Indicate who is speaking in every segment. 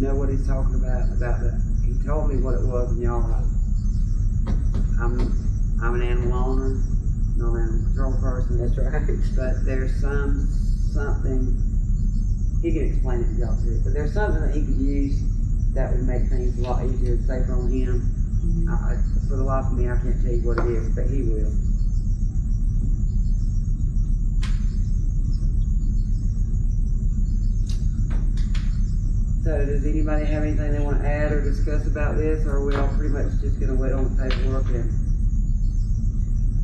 Speaker 1: know what he's talking about, about the, he told me what it was and y'all, I'm, I'm an animal owner, not an animal control person.
Speaker 2: That's right.
Speaker 1: But there's some, something, he can explain it to y'all too, but there's something that he could use that would make things a lot easier and safer on him. I, I- for the life of me, I can't tell you what it is, but he will. So does anybody have anything they wanna add or discuss about this, or are we all pretty much just gonna wait on the paperwork and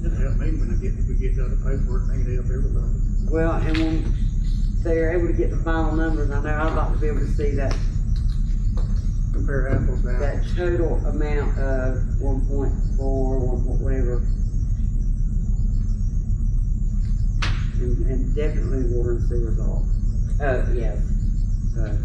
Speaker 3: It'll help me when I get, we get the other paperwork, and it'll help everybody.
Speaker 1: Well, and when they're able to get the final numbers, I know I'd like to be able to see that,
Speaker 3: Compare apples to apples.
Speaker 1: that total amount of one point four, one point whatever. And, and definitely water and sewer's off,
Speaker 2: Oh, yes.
Speaker 1: so.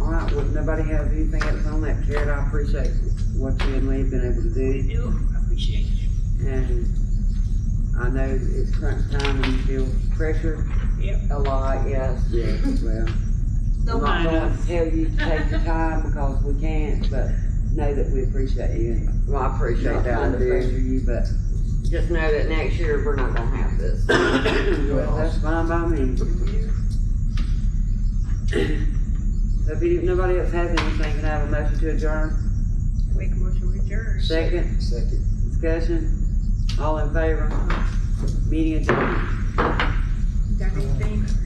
Speaker 1: All right, well, if nobody has anything else on that, Jared, I appreciate what you and Lee have been able to do.
Speaker 4: I appreciate you.
Speaker 1: And I know it's crunch time and you feel pressure
Speaker 4: Yep.
Speaker 1: a lot, yes. Yes, well. I'm not
Speaker 4: Don't mind
Speaker 1: going
Speaker 4: us.
Speaker 1: to tell you to take your time because we can't, but know that we appreciate you.
Speaker 2: Well, I appreciate
Speaker 1: Not
Speaker 2: that,
Speaker 1: trying to
Speaker 2: I do.
Speaker 1: pressure you, but,
Speaker 2: Just know that next year, we're not gonna have this.
Speaker 1: well, that's fine by me. So if any- nobody else has anything, can I have a motion to adjourn?
Speaker 4: Make a motion to adjourn.
Speaker 1: Second? Second. Discussion? All in favor? Meeting adjourned.
Speaker 4: Got anything?